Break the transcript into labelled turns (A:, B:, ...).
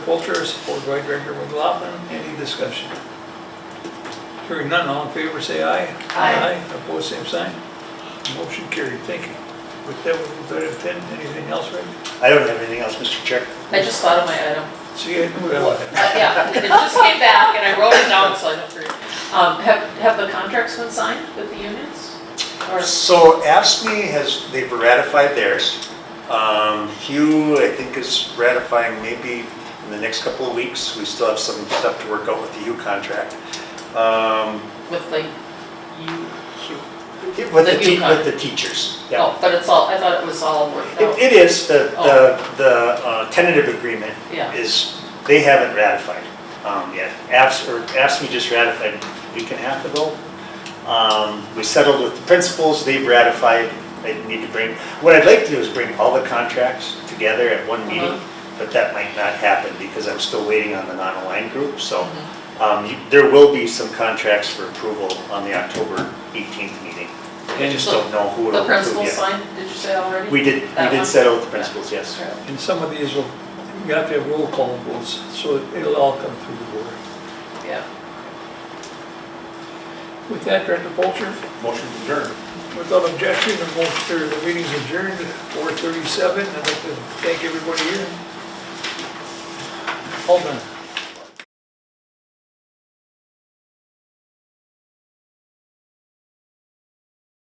A: Walter, supported by Director McLaughlin. Any discussion? Hearing none, all in favor, say aye.
B: Aye.
A: Opposed, same sign. Motion carried. Thank you. With that, we'll go to 10. Anything else, Rick?
C: I don't have anything else, Mr. Chair.
B: I just thought of my item.
A: See, I knew that.
B: Uh, Yeah, it just came back and I wrote it down so I don't forget. Um, Have, have the contracts been signed with the unions? Or,
C: So ASME has, they've ratified theirs. Um, Hugh, I think, is ratifying maybe in the next couple of weeks. We still have some stuff to work out with the Hugh contract. Um,
B: with like, you,
C: it- With
B: The
C: the,
B: Hugh
C: te- with the teachers, yeah.
B: oh, but it's all, I thought it was all worked
C: It
B: out.
C: it is, the,
B: Oh.
C: the the uh, tentative agreement
B: Yeah.
C: is, they haven't ratified um, yet. AFS, or AFSME just ratified a week and a half ago. Um, We settled with the principals, they've ratified, they need to bring, what I'd like to do is bring all the contracts together at one meeting, but that might not happen because I'm still waiting on the non-aligned group, so um, you- there will be some contracts for approval on the October 18th meeting. I just
B: So,
C: don't know who it'll
B: The
C: approve yet.
B: principals signed, did you say already?
C: We did, we
B: That
C: did
B: one?
C: settle with the principals, yes.
B: Sure.
A: And some of these will, you have to have roll call votes, so it'll all come through the board.
B: Yeah.
A: With that, Director Polter,
D: Motion to adjourn.
A: without objection, the motion, the meeting's adjourned at 4:37. I'd like to thank everybody here. All done.